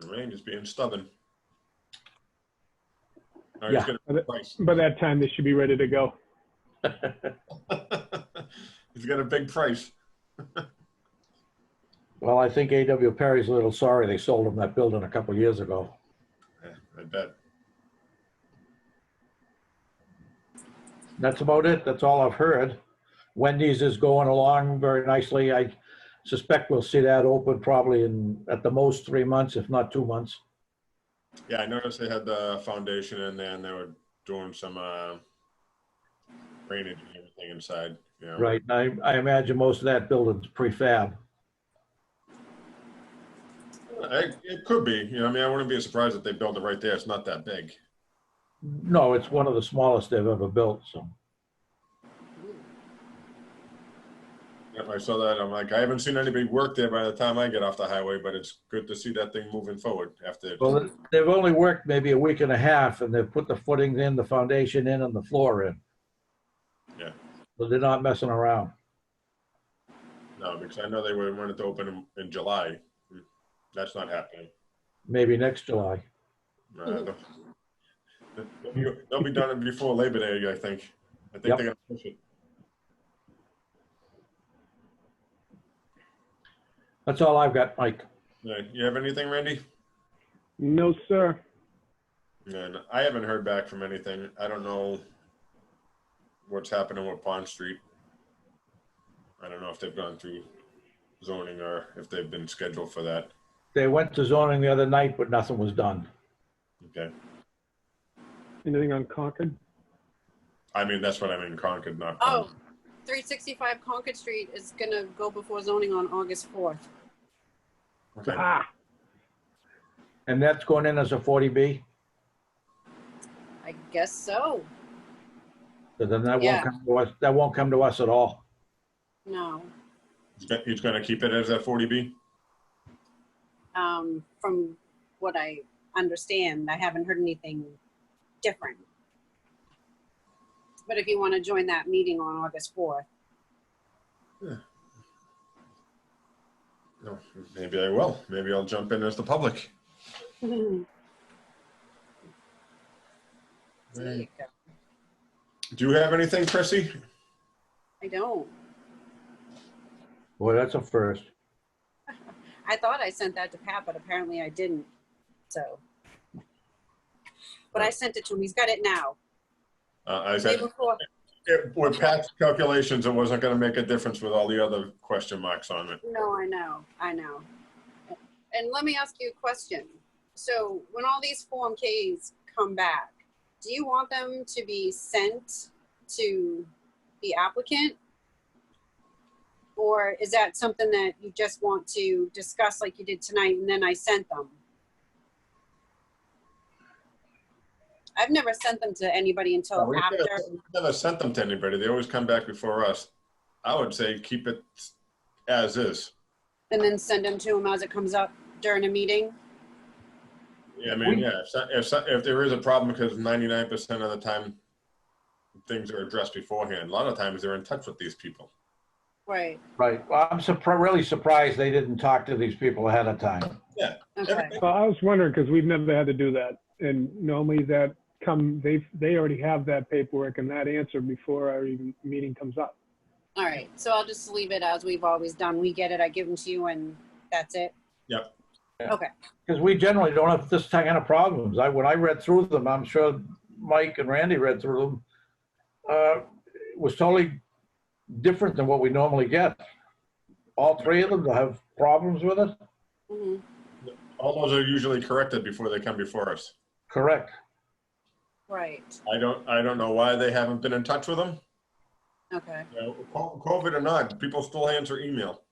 The Rangers being stubborn. All right, Yeah. he's gonna But- price. By that time, they should be ready to go. he's got a big price. Well, I think A.W. Perry's a little sorry they sold him that building a couple years ago. Yeah, I bet. That's about it. That's all I've heard. Wendy's is going along very nicely. I suspect we'll see that open probably in, at the most, three months, if not two months. Yeah, I noticed they had the foundation in there and they were doing some uh, drainage and everything inside. You know. Right, I, I imagine most of that building's prefab. I, it could be. You know, I mean, I wouldn't be surprised if they built it right there. It's not that big. No, it's one of the smallest they've ever built, so. Yep, I saw that. I'm like, I haven't seen anybody work there by the time I get off the highway, but it's good to see that thing moving forward after. Well, they've only worked maybe a week and a half, and they've put the footings in, the foundation in, and the floor in. Yeah. So they're not messing around. No, because I know they were wanted to open in, in July. That's not happening. Maybe next July. Uh, they'll- they'll be- They'll be done before Labor Day, I think. I think they're Yep. gonna push it. That's all I've got, Mike. Yeah, Uh, You have anything, Randy? No, sir. And I haven't heard back from anything. I don't know what's happening with Pond Street. I don't know if they've gone through zoning or if they've been scheduled for that. They went to zoning the other night, but nothing was done. Okay. Anything on Concord? I mean, that's what I mean, Concord, not Oh, Pond. 365 Concord Street is going to go before zoning on August 4th. Okay. Ah, And that's going in as a 40B, I guess so. so then that Yeah. won't come to us, that won't come to us at all. No. He's go- He's gonna keep it as a forty B? Um, from what I understand, I haven't heard anything different. But if you want to join that meeting on August 4th, No, maybe I will. Maybe I'll jump in as the public. there you Do go. you have anything, Chrissy? I don't. Boy, that's a first. I thought I sent that to Pat, but apparently I didn't. So, but I sent it to him. He's got it now. Uh, I Day said, before. it- with Pat's calculations, it wasn't gonna make a difference with all the other question marks on it. No, I know. I know. And let me ask you a question. So, when all these Form Ks come back, do you want them to be sent to the applicant? Or is that something that you just want to discuss like you did tonight and then I sent them? I've never sent them to anybody until We've Oh, after. never- we've Never sent them to anybody. They always come back before us. I would say keep it as is. and then send them to him as it comes up during a meeting. Yeah, I mean, yeah, if, so- if, so- if there is a problem, because ninety-nine percent of the time, things are addressed beforehand. A lot of times, they're in touch with these people. Right. Right, well, I'm surprised, really surprised they didn't talk to these people ahead of time. Okay. Everything- well, I was wondering because we've never had to do that, and normally that come they they already have that paperwork and that answer before our even meeting comes up. All right. So I'll just leave it as we've always done. We get it. I give them to you and that's it. Because we generally don't have this kind of problems. I, when I read through them, I'm sure Mike and Randy read through them, uh, it was totally different than what we normally get. All three of them have problems with it? hmm All those are usually corrected before they come before us. Correct. Right. I don't, I don't know why they haven't been in touch with them. Okay. You know, co- COVID or not, people still answer email.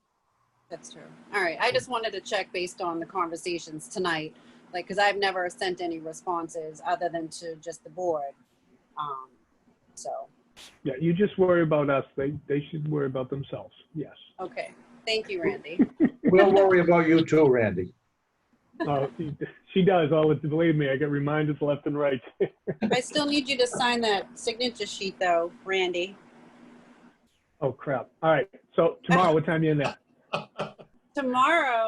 That's true. All right. I just wanted to check based on the conversations tonight, like, because I've never sent any responses other than to just the board. Um, so, Yeah, you just worry about us. They they should worry about themselves. Yes. okay. Thank you, Randy. We'll worry about you too, Randy. Oh, she, she does. Oh, believe me, I get reminders left and right. I still need you to sign that signature sheet though, Randy. oh crap. All right. So tomorrow, what time are you in there? Tomorrow,